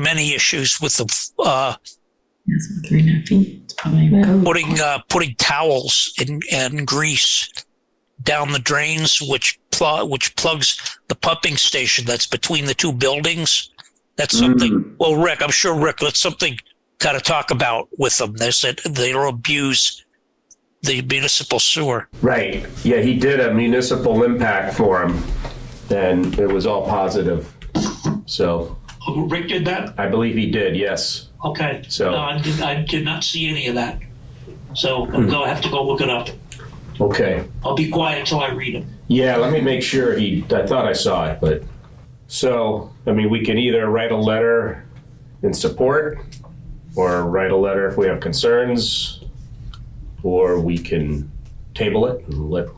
many issues with the uh, That's about three and a half feet. It's probably Yeah. code. putting uh, putting towels and, and grease down the drains, which pl- which plugs the pumping station that's between the two buildings. That's something. Well, Rick, I'm sure Rick, that's something got to talk about with them. They said they'll abuse the municipal sewer. Right. Yeah, he did a municipal impact forum, and it was all positive. So Oh, Rick did that. I believe he did. Yes. Okay. So- no, I did, I did not see any of that. So I'm gonna have to go look it up. Okay. I'll be quiet until I read it. Yeah, let me make sure he, I thought I saw it, but, so, I mean, we can either write a letter in support, or write a letter if we have concerns, or we can table it and let,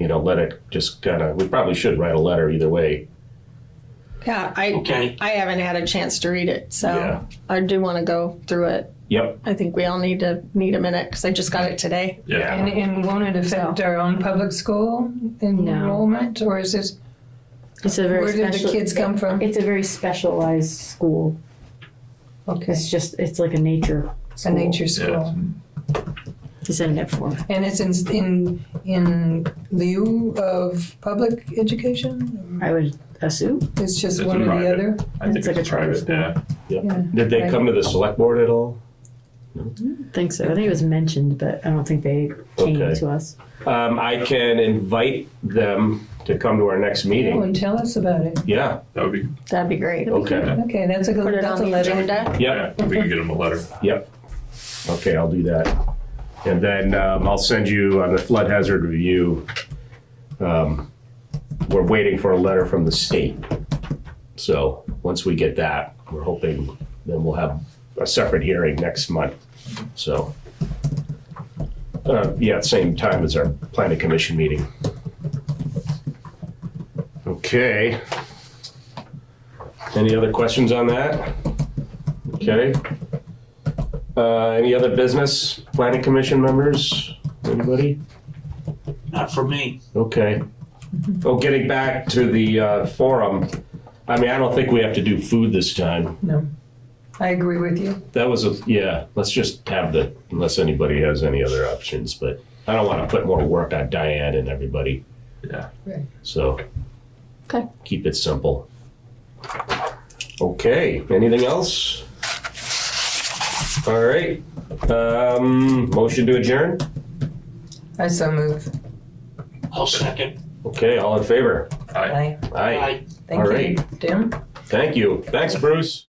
you know, let it just kind of, we probably should write a letter either way. Yeah, I Okay. I haven't had a chance to read it, so Yeah. I do want to go through it. Yep. I think we all need to need a minute because I just got it today. And, and won't it affect our own public school enrollment, or is this, It's a very where did the special- kids come from? It's a very specialized school. Okay, It's just it's like a nature. it's a nature school. It's in it for. And it's in, in, in lieu of public education? I would assume. It's just It's one or the private. other? I think It's it's, like a charter private. school. Yeah. Yeah. Did they come to the select board at all? Think so. I think it was mentioned, but I don't think they came Okay. to us. Um, I can invite them to come to our next Oh, meeting. and tell us about it. Yeah, That would be. That'd be great. okay, Okay, that's a, Put good. it that's a on the letter. agenda. yep. Yeah. We can get them a letter. Yep. Okay, I'll do that. And then um, I'll send you on the flood hazard review. um, We're waiting for a letter from the state. So once we get that, we're hoping then we'll have a separate hearing next month. So, uh, yeah, same time as our planning commission meeting. Okay. Any other questions on that? Okay. Uh, any other business? Planning Commission members? Anybody? Not for me. Okay. Oh, getting back to the uh, forum, I mean, I don't think we have to do food this time. No. I agree with you. That was a, yeah, let's just have the, unless anybody has any other options, but I don't want to put more work on Diane and everybody, Yeah. so. Okay. Keep it simple. Okay, anything else? All right, um, motion to adjourn? I so move. I'll second. Okay, all in favor? Aye. Aye. Aye. Aye. Thank All you. right. Tim? Thank you. Thanks, Bruce.